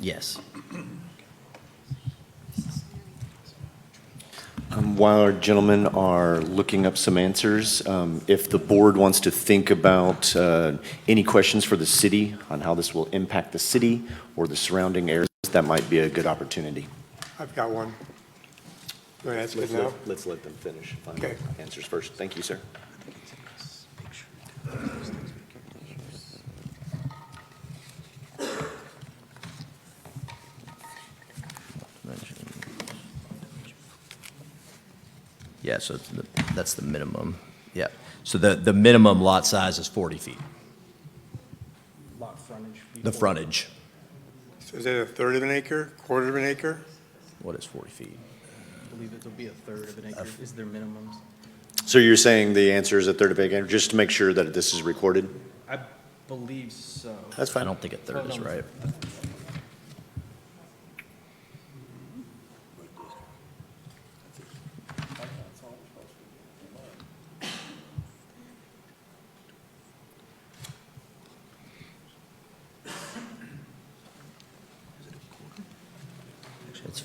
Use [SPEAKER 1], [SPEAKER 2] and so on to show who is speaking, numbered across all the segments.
[SPEAKER 1] Yes.
[SPEAKER 2] Um, While our gentlemen are looking up some answers, um, if the board wants to think about uh, any questions for the city on how this will impact the city or the surrounding areas, that might be a good opportunity.
[SPEAKER 3] I've got one. You want to ask it
[SPEAKER 2] Let's
[SPEAKER 3] now?
[SPEAKER 2] let- let's let them finish. Find
[SPEAKER 3] Okay.
[SPEAKER 2] Answers first. Thank you, sir.
[SPEAKER 1] Yeah, so it's the- that's the minimum. Yeah. So the, the minimum lot size is 40 feet,
[SPEAKER 4] lot frontage.
[SPEAKER 1] the frontage.
[SPEAKER 3] So Is it a third of an acre, quarter of an acre?
[SPEAKER 1] What is 40 feet?
[SPEAKER 4] I believe it'll be a third of an acre is their minimums.
[SPEAKER 2] So you're saying the answer is a third of a acre, just to make sure that this is recorded?
[SPEAKER 4] I believe so.
[SPEAKER 2] That's
[SPEAKER 1] I
[SPEAKER 2] fine.
[SPEAKER 1] don't think a third is right. Actually, it's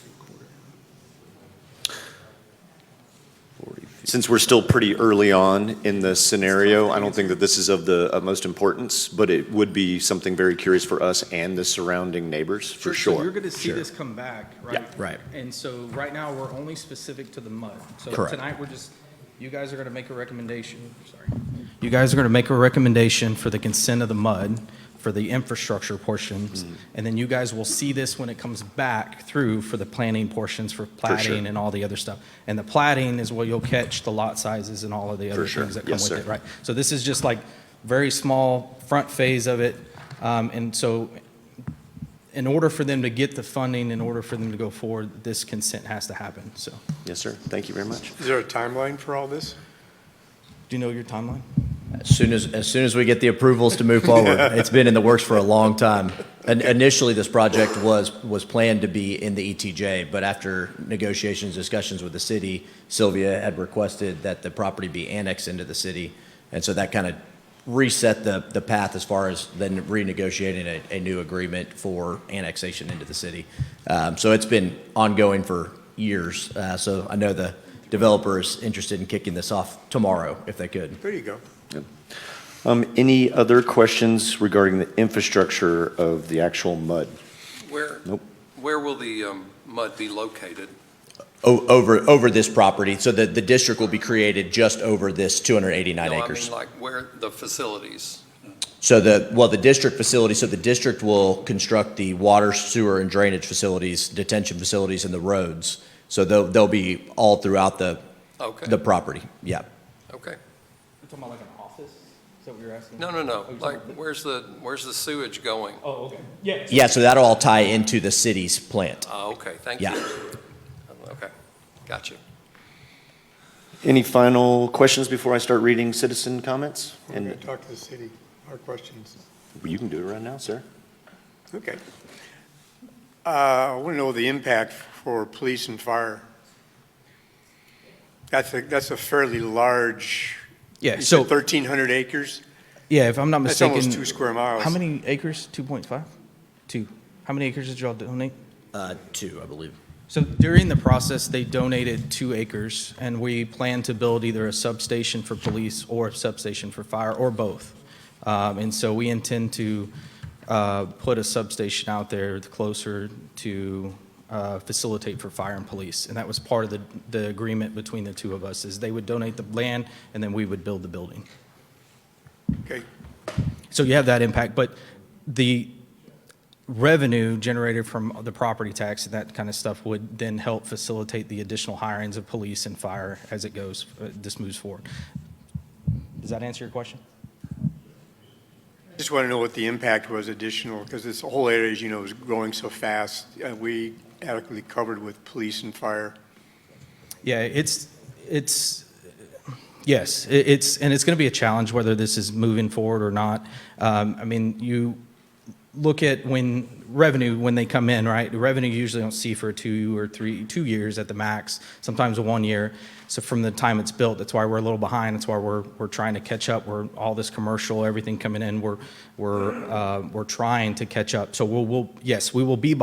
[SPEAKER 1] Forty feet.
[SPEAKER 2] Since we're still pretty early on in the scenario, I don't think that this is of the utmost importance, but it would be something very curious for us and the surrounding neighbors, for
[SPEAKER 4] So You're
[SPEAKER 2] sure.
[SPEAKER 4] gonna see
[SPEAKER 1] Sure.
[SPEAKER 4] this come back, right?
[SPEAKER 1] Yeah, right.
[SPEAKER 4] And so right now, we're only specific to the mud. So
[SPEAKER 1] Correct.
[SPEAKER 4] tonight, we're just, you guys are gonna make a recommendation, sorry. You guys are gonna make a recommendation for the consent of the mud, for the infrastructure portions.
[SPEAKER 1] Mm-hmm.
[SPEAKER 4] And then you guys will see this when it comes back through for the planning portions for plating and all the other stuff. And the plating is where you'll catch the lot sizes and all of the other
[SPEAKER 2] sure.
[SPEAKER 4] things that come
[SPEAKER 2] Yes,
[SPEAKER 4] with
[SPEAKER 2] sir.
[SPEAKER 4] it, right? So this is just like very small front phase of it. Um, and so in order for them to get the funding, in order for them to go forward, this consent has to happen, so.
[SPEAKER 2] Yes, sir. Thank you very much.
[SPEAKER 3] Is there a timeline for all this?
[SPEAKER 4] Do you know your timeline?
[SPEAKER 1] As soon as, as soon as we get the approvals to move forward, it's been in the works for a long time. And initially, this project was, was planned to be in the ETJ, but after negotiations, discussions with the city, Sylvia had requested that the property be annexed into the city. And so that kind of reset the, the path as far as then renegotiating a, a new agreement for annexation into the city. Um, so it's been ongoing for years. Uh, so I know the developer is interested in kicking this off tomorrow if they could.
[SPEAKER 3] There you go.
[SPEAKER 2] Um, Any other questions regarding the infrastructure of the actual mud?
[SPEAKER 5] Where,
[SPEAKER 2] Nope.
[SPEAKER 5] where will the um, mud be located?
[SPEAKER 1] O- Over, over this property, so the, the district will be created just over this 289 acres.
[SPEAKER 5] No, I mean, like, where, the facilities?
[SPEAKER 1] So the, well, the district facility, so the district will construct the water, sewer, and drainage facilities, detention facilities, and the roads. So they'll, they'll be all throughout the,
[SPEAKER 5] Okay,
[SPEAKER 1] the property, yeah.
[SPEAKER 5] okay.
[SPEAKER 4] You're talking about like an office? Is that what you're asking?
[SPEAKER 5] No, no,
[SPEAKER 4] Oh,
[SPEAKER 5] no,
[SPEAKER 4] you're
[SPEAKER 5] like,
[SPEAKER 4] talking about-
[SPEAKER 5] where's the, where's the sewage going?
[SPEAKER 4] Oh, okay. Yeah.
[SPEAKER 1] Yeah, so that'll all tie into the city's plant.
[SPEAKER 5] Ah, okay, thank you.
[SPEAKER 1] Yeah.
[SPEAKER 5] Okay, got you.
[SPEAKER 2] Any final questions before I start reading citizen comments?
[SPEAKER 3] We're going
[SPEAKER 2] And
[SPEAKER 3] to talk to the city, our questions.
[SPEAKER 2] you can do it right now, sir.
[SPEAKER 3] Okay. Uh, I want to know the impact for police and fire. That's a, that's a fairly large,
[SPEAKER 4] Yeah,
[SPEAKER 3] you said
[SPEAKER 4] so,
[SPEAKER 3] 1,300 acres?
[SPEAKER 4] yeah, if I'm not
[SPEAKER 3] That's
[SPEAKER 4] mistaken.
[SPEAKER 3] almost two square miles.
[SPEAKER 4] How many acres? 2.5? Two. How many acres did y'all donate?
[SPEAKER 1] Uh, two, I believe.
[SPEAKER 4] So during the process, they donated two acres, and we plan to build either a substation for police or a substation for fire, or both. Um, And so we intend to uh, put a substation out there closer to uh, facilitate for fire and police. And that was part of the, the agreement between the two of us, is they would donate the land, and then we would build the building.
[SPEAKER 3] Okay.
[SPEAKER 4] So you have that impact, but the revenue generated from the property tax and that kind of stuff would then help facilitate the additional hirings of police and fire as it goes, uh, this moves forward. Does that answer your question?
[SPEAKER 3] Just want to know what the impact was additional, because this whole area, as you know, is growing so fast. Uh, We adequately covered with police and fire.
[SPEAKER 4] Yeah, it's, it's, yes, it- it's, and it's going to be a challenge whether this is moving forward or not. Um, I mean, you look at when revenue, when they come in, right? Revenue you usually don't see for two or three, two years at the max, sometimes one year. So from the time it's built, that's why we're a little behind. That's why we're, we're trying to catch up. We're all this commercial, everything coming in, we're, we're, uh, we're trying to catch up. So we'll, we'll, yes, we will be